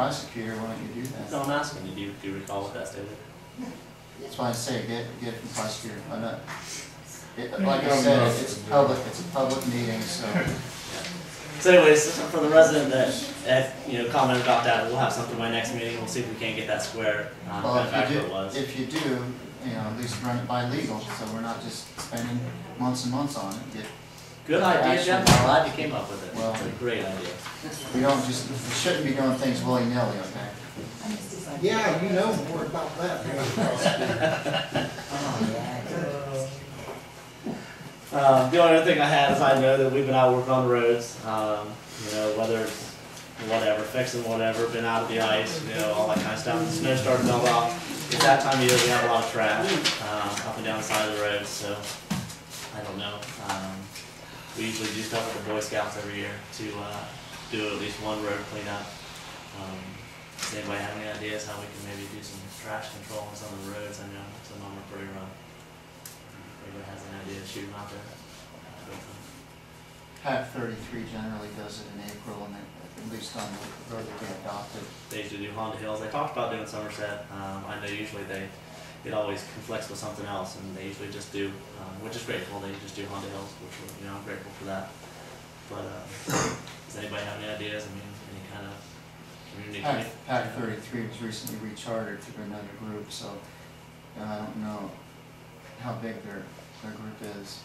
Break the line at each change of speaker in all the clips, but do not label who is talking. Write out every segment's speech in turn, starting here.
prosecutor, why don't you do
No,
that?
I'm asking you, do you, do you recall what that statement?
That's why I say, get, get it from prosecutor, why not? It- Like I said, it's public, it's a public meeting, so
So anyways, for the resident that, that, you know, commented about that, we'll have something by next meeting, we'll see if we can't get that square, uh,
Well,
kind of back
if you
where it
do,
was.
if you do, you know, at least run it by legal, so we're not just spending months and months on it. Get-
Good idea, Jeff, I'm glad you came up with it,
Well-
it's a great idea.
We don't just, we shouldn't be doing things willy-nilly, okay?
Yeah, you know more about that.
Um, the only other thing I have is I know that we've been out working on the roads, um, you know, whether it's whatever, fixing whatever, been out of the ice, you know, all that kind of stuff. The snow started to melt off. It's that time of year, we have a lot of trash, um, up and down the side of the roads, so, I don't know. Um, we usually do stuff with the Boy Scouts every year to, uh, do at least one road cleanup. Um, does anybody have any ideas how we can maybe do some trash control on some of the roads? I know some of them are pretty rough. Anybody has an idea, shoot 'em out there.
Pac thirty-three generally does it in April, and it- at least on the road that they adopted.
They used to do Honda Hills, they talked about doing Somerset, um, I know usually they, it always conflicts with something else, and they usually just do, um, which is grateful, they just do Honda Hills, which, we're- you know, I'm grateful for that. But, uh, does anybody have any ideas, I mean, any kind of community?
Pac, Pac thirty-three was recently rechartered to another group, so uh, I don't know how big their, their group is.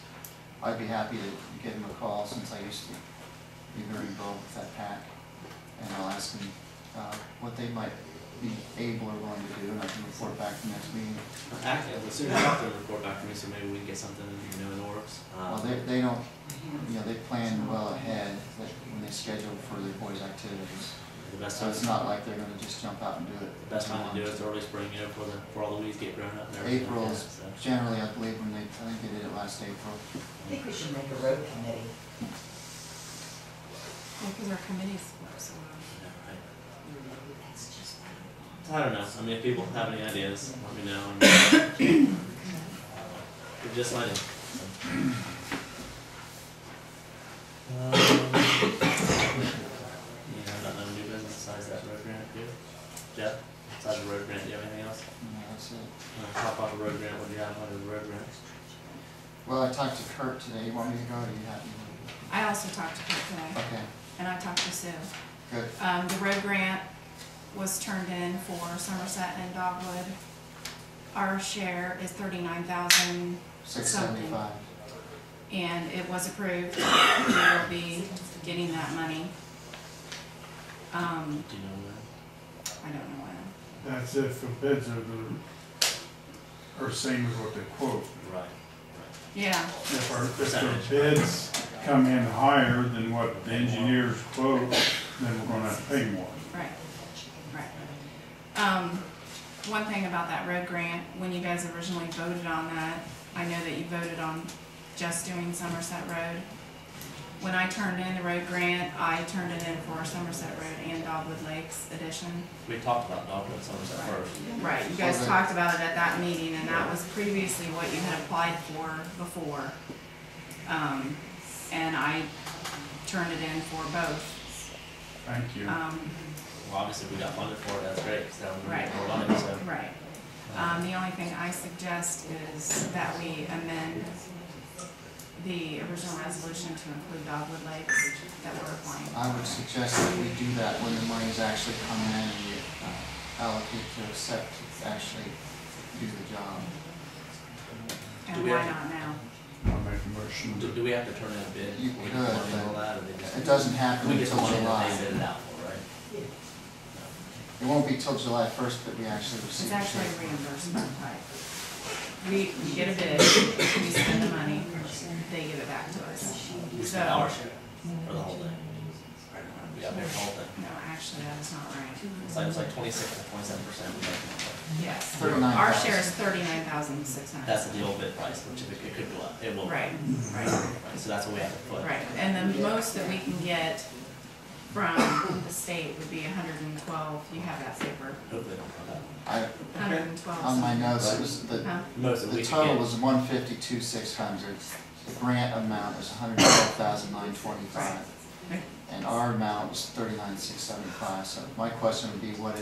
I'd be happy to give them a call since I used to be very involved with that pack. And I'll ask them, uh, what they might be able or willing to do, and I can report back the next meeting.
Active, as soon as I can report back to me, so maybe we can get something, you know, in the works. Um,
Well, they, they don't, you know, they plan well ahead, like, when they schedule for their boys' activities.
The best
So
time,
it's
the
not like they're gonna just jump out and do it.
best time to do it is early spring, you know, before the, before all the weeds get grown up and everything. like
April
that,
is
so.
generally, I believe, when they, I think they did it last April.
I think we should make a road committee.
Because our committees work so um, well.
Yeah, right. I don't know. I mean, if people have any ideas, let me know. and- uh, We're just letting. Um, You know, not no new business besides that road grant, do you? Jeff, besides the road grant, do you have anything else? Uh,
And that's it.
Wanna Talk about the road grant, what do you have under the road grant?
Well, I talked to Kurt today, you want me to go, or you happy?
I also talked to Kurt today,
Okay,
and I talked to Sue.
good,
Um, the road grant was turned in for Somerset and Dogwood. Our share is thirty-nine thousand,
six seventy-five.
and it was approved. We will be getting that money. Um,
Do you know that?
I don't know when.
That's if the bids are the, are same as what they quote.
Right.
Yeah,
If our, if the bids come in higher than what the engineers quote, then we're gonna have to pay more.
right, right. Um, one thing about that road grant, when you guys originally voted on that, I know that you voted on just doing Somerset Road. When I turned in the road grant, I turned it in for Somerset Road and Dogwood Lakes addition.
We talked about Dogwood Somerset first.
Right, you guys
Okay.
talked about it at that meeting, and that was previously what you had applied for before. Um, and I turned it in for both.
Thank you.
Um,
Well, obviously, we got funded for it, that's great, so we're
Right.
we're on it, so.
right. Um, the only thing I suggest is that we amend the original resolution to include Dogwood Lakes that we're applying.
Uh,
I would suggest that we do that when the money's actually coming in and you uh, allocate to accept, to actually do the job.
Do
And
we
why
have-
not now?
I'll make a motion
Do,
to
do we have to turn in a bid?
You
We
could,
just want to
but
know that, or they just-
It doesn't happen
We just
until
want it,
July.
they bid it out for, right?
It won't be till July first that we actually receive
It's
the
actually
check.
reimbursement type. We, we get a bid, we spend the money, they give it back to us.
We
So,
spent our
no,
share, or the whole thing. We got paid for the whole thing.
actually, that is not right.
It's like, it's like twenty-six to twenty-seven percent.
Yes.
Thirty-nine
Our
thousand.
share is thirty-nine thousand six hundred.
That's the deal bid price, which if it it could go up, it will.
Right, right,
Right, So that's what we have to put.
right. And the most that we can get from the state would be hundred and twelve, you have that paper,
Hopefully, don't come back.
I,
hundred and twelve.
on my notes, it was the,
Most that
The
we could
total
get.
was one fifty-two, six hundred. The grant amount was 112,925.
Right.
and our amount was thirty-nine, six seventy-five, so my question would be, what is